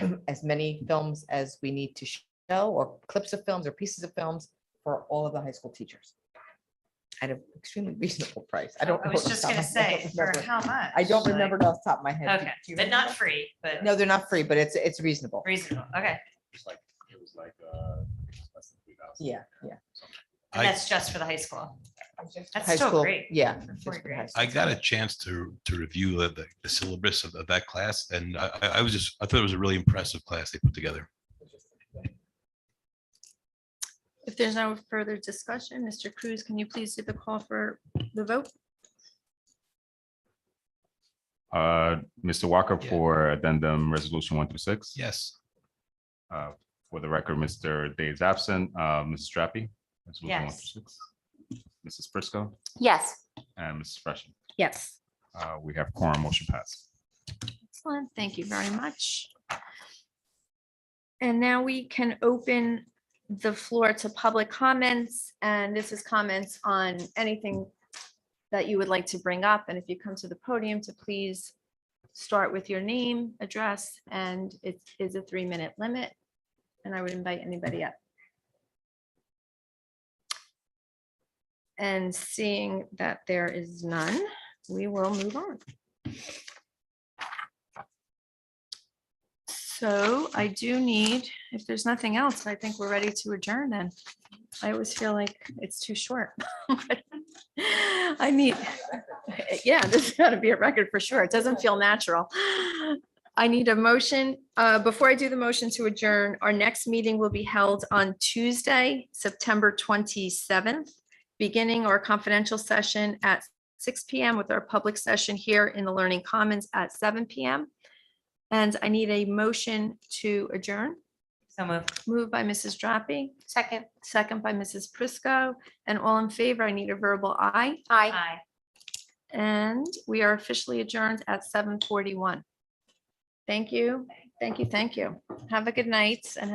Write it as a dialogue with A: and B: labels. A: as many films as we need to show, or clips of films or pieces of films for all of the high school teachers. At an extremely reasonable price. I don't.
B: I
A: know
B: was
A: off the
B: just
A: top of
B: gonna
A: my head. I
B: say,
A: don't
B: for
A: remember.
B: how much?
A: I don't
B: Like,
A: remember it off the top of my head. Do-
B: Okay,
A: do you
B: but not
A: remember?
B: free, but
A: No, they're not free, but it's, it's reasonable.
B: reasonable. Okay.
C: It's like, it was like, uh, less than three thousand.
A: Yeah, yeah.
B: And
D: I-
B: that's just for the high school. That's
A: High
B: still
A: school,
B: great.
A: Yeah.
B: For
A: just
B: fourth
A: for
B: grade.
A: high school.
D: I got a chance to, to review the, the- the syllabus of, of that class and I, I- I was just, I thought it was a really impressive class they put together.
E: If there's no further discussion, Mr. Cruz, can you please do the call for the vote?
F: Uh, Mr. Walker
D: Yeah.
F: for addendum resolution one through six.
D: Yes.
F: Uh, For the record, Mr. Day is absent. Uh, Mrs. Drappi. resolution one
B: Yes.
F: through six. Mrs. Prisco
E: Yes.
F: and Mrs. Freshen.
E: Yes.
F: Uh, we have quorum motion passed.
E: Excellent. Thank you very much. And now we can open the floor to public comments, and this is comments on anything that you would like to bring up. And if you come to the podium to please start with your name, address, and it is a three-minute limit. And I would invite anybody up. And seeing that there is none, we will move on. So I do need, if there's nothing else, I think we're ready to adjourn then. I always feel like it's too short. I need, yeah, this has got to be a record for sure. It doesn't feel natural. I need a motion. Uh, Before I do the motion to adjourn, our next meeting will be held on Tuesday, September 27th, beginning our confidential session at six PM with our public session here in the Learning Commons at seven PM. And I need a motion to adjourn,
B: So move.
E: moved by Mrs. Drappi. Second. Second by Mrs. Prisco, and all in favor, I need a verbal aye. Aye.
B: Aye.
E: And we are officially adjourned at seven forty-one. Thank you, thank you, thank you. Have a good night and